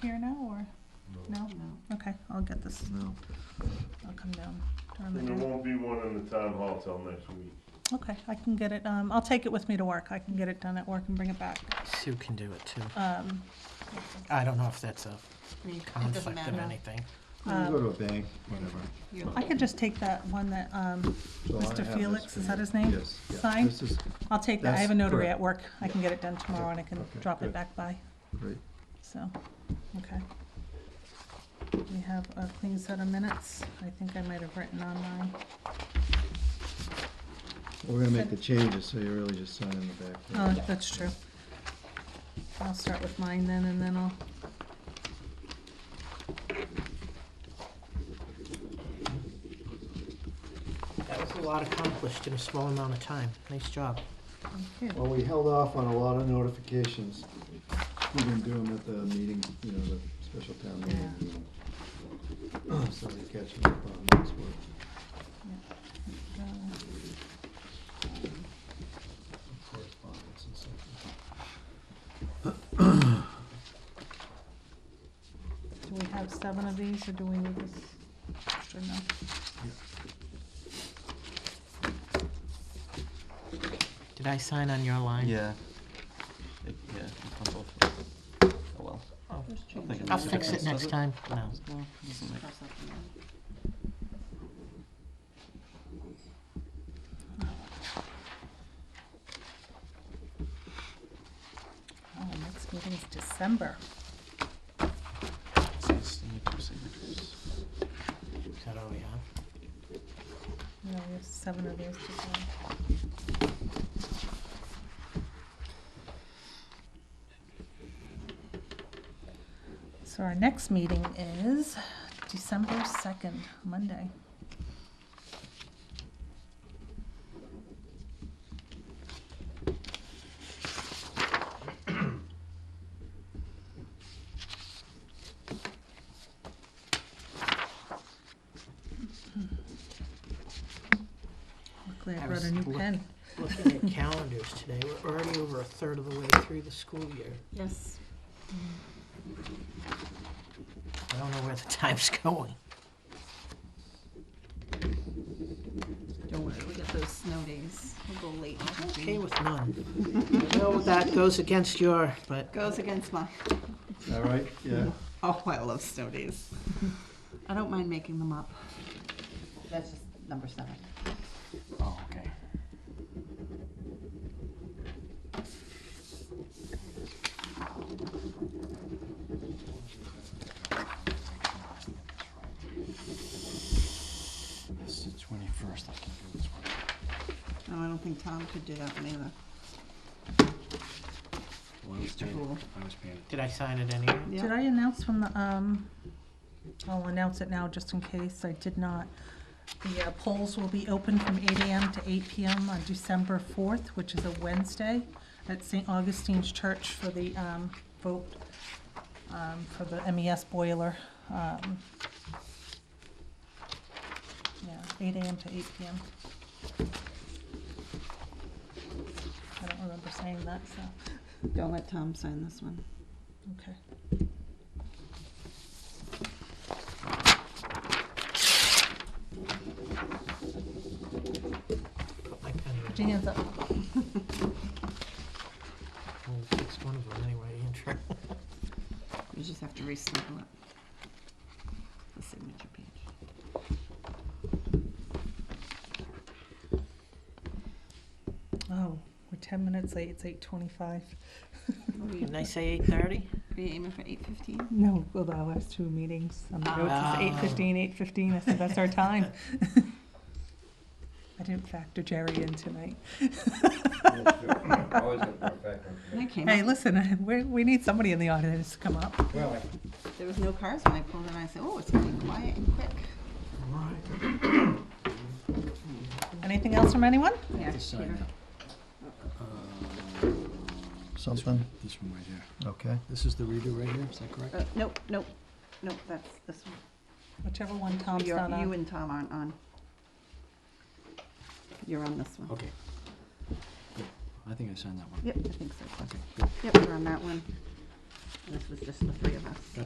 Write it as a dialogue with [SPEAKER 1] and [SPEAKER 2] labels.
[SPEAKER 1] here now, or, no?
[SPEAKER 2] No.
[SPEAKER 1] Okay, I'll get this,
[SPEAKER 3] No.
[SPEAKER 1] I'll come down during
[SPEAKER 4] And there
[SPEAKER 1] the day.
[SPEAKER 4] won't be one in the town hall till next week.
[SPEAKER 1] Okay, I can get it, um, I'll take it with me to work, I can get it done at work and bring it back.
[SPEAKER 3] Sue can do it too.
[SPEAKER 1] Um,
[SPEAKER 3] I don't know if that's a
[SPEAKER 2] I mean, It doesn't
[SPEAKER 3] conflict of
[SPEAKER 2] matter.
[SPEAKER 3] anything.
[SPEAKER 5] You can go to a bank, whatever.
[SPEAKER 2] You're-
[SPEAKER 1] um, I could just take that one that, um,
[SPEAKER 5] So I
[SPEAKER 1] Mr.
[SPEAKER 5] have this
[SPEAKER 1] Felix,
[SPEAKER 5] for
[SPEAKER 1] is that
[SPEAKER 5] you.
[SPEAKER 1] his name?
[SPEAKER 5] Yes, yeah.
[SPEAKER 1] Signed?
[SPEAKER 5] This is
[SPEAKER 1] I'll take that, I have a
[SPEAKER 5] That's
[SPEAKER 1] notary
[SPEAKER 5] correct.
[SPEAKER 1] at work, I can get it done tomorrow and I can
[SPEAKER 5] Okay,
[SPEAKER 1] drop it
[SPEAKER 5] good.
[SPEAKER 1] back by,
[SPEAKER 5] great.
[SPEAKER 1] so, okay. We have a clean set of minutes, I think I might have written on mine.
[SPEAKER 5] We're gonna make the changes, so you're really just signing the back. page.
[SPEAKER 1] Oh, that's true. I'll start with mine then, and then I'll.
[SPEAKER 3] That was a lot accomplished in a small amount of time. Nice job.
[SPEAKER 1] okay.
[SPEAKER 5] Well, we held off on a lot of notifications. We didn't do them at the meeting, you know, the special town meeting. you know. So we catching up on this one.
[SPEAKER 1] Uh,
[SPEAKER 5] Correspondence and stuff.
[SPEAKER 1] Do we have seven of these, or do we need this? extra? no?
[SPEAKER 3] Did I sign on your line?
[SPEAKER 6] Yeah. It, yeah, it's on both. of us. Oh well.
[SPEAKER 2] Just change
[SPEAKER 6] think
[SPEAKER 2] it.
[SPEAKER 3] I'll fix it
[SPEAKER 6] Does
[SPEAKER 3] next
[SPEAKER 6] it?
[SPEAKER 3] time. No.
[SPEAKER 6] No, it doesn't make-
[SPEAKER 2] Cross out the one.
[SPEAKER 1] Oh, next meeting's December.
[SPEAKER 6] it's- it's- you need two signatures.
[SPEAKER 3] Is that all we have?
[SPEAKER 1] No, we have seven of these to sign. So our next meeting is December second, Monday. Luckily I brought
[SPEAKER 3] I
[SPEAKER 1] a
[SPEAKER 3] was
[SPEAKER 1] new
[SPEAKER 3] look-
[SPEAKER 1] pen.
[SPEAKER 3] Looking at calendars today, we're already over a third of the way through the school year.
[SPEAKER 2] Yes.
[SPEAKER 3] I don't know where the time's going.
[SPEAKER 2] Don't worry, we got those snow days. We'll go late.
[SPEAKER 3] I'm okay with none. I know that goes against your, but
[SPEAKER 2] Goes against my,
[SPEAKER 5] All right, yeah.
[SPEAKER 2] oh, I love snow days. I don't mind making them up. That's just number seven.
[SPEAKER 3] oh, okay.
[SPEAKER 6] It's the twenty-first, I can do this one.
[SPEAKER 2] No, I don't think Tom could do that one either.
[SPEAKER 6] Well, I was
[SPEAKER 2] Mr. Poole.
[SPEAKER 6] paying, I was paying
[SPEAKER 3] Did I sign it anyway?
[SPEAKER 2] Yeah.
[SPEAKER 1] Did I announce from the, um, I'll announce it now just in case, I did not. The uh, polls will be open from eight AM to eight PM on December fourth, which is a Wednesday, at St. Augustine's Church for the, um, vote, um, for the MES boiler, um. Yeah, eight AM to eight PM. I don't remember saying that, so,
[SPEAKER 2] Don't let Tom sign this one.
[SPEAKER 1] okay.
[SPEAKER 3] Put my pen
[SPEAKER 1] Put
[SPEAKER 3] in.
[SPEAKER 1] your hands up.
[SPEAKER 3] We'll fix one of them anyway, Andrew.
[SPEAKER 2] You just have to re-staple it. The signature page.
[SPEAKER 1] Oh, we're ten minutes late, it's eight twenty-five.
[SPEAKER 2] What are you-
[SPEAKER 3] Didn't I say eight thirty?
[SPEAKER 2] Are you aiming for eight fifteen?
[SPEAKER 1] No, well, the last two meetings um, on the road, it's eight fifteen, eight fifteen, I said, that's our time. I didn't factor Jerry in tonight.
[SPEAKER 7] Always look for a factor.
[SPEAKER 2] I came
[SPEAKER 1] Hey,
[SPEAKER 2] up,
[SPEAKER 1] listen, I- we, we need somebody in the audience to come up.
[SPEAKER 7] Well,
[SPEAKER 2] there was no cars when I pulled in, I said, oh, it's getting quiet and quick.
[SPEAKER 1] Anything else from anyone?
[SPEAKER 2] Yeah,
[SPEAKER 6] sign
[SPEAKER 2] Peter.
[SPEAKER 5] Something,
[SPEAKER 6] Uh, this one right here.
[SPEAKER 5] okay.
[SPEAKER 6] This is the redo right here, is that correct?
[SPEAKER 2] Uh, Nope, nope, nope, that's this one.
[SPEAKER 1] Whichever one Tom's
[SPEAKER 2] You're-
[SPEAKER 1] not
[SPEAKER 2] You
[SPEAKER 1] on.
[SPEAKER 2] and Tom aren't on. You're on this one.
[SPEAKER 6] Okay. Good. I think I signed that one.
[SPEAKER 2] Yep, I think so.
[SPEAKER 6] Okay, good.
[SPEAKER 2] Yep, you're on that one. And This was just the three of us.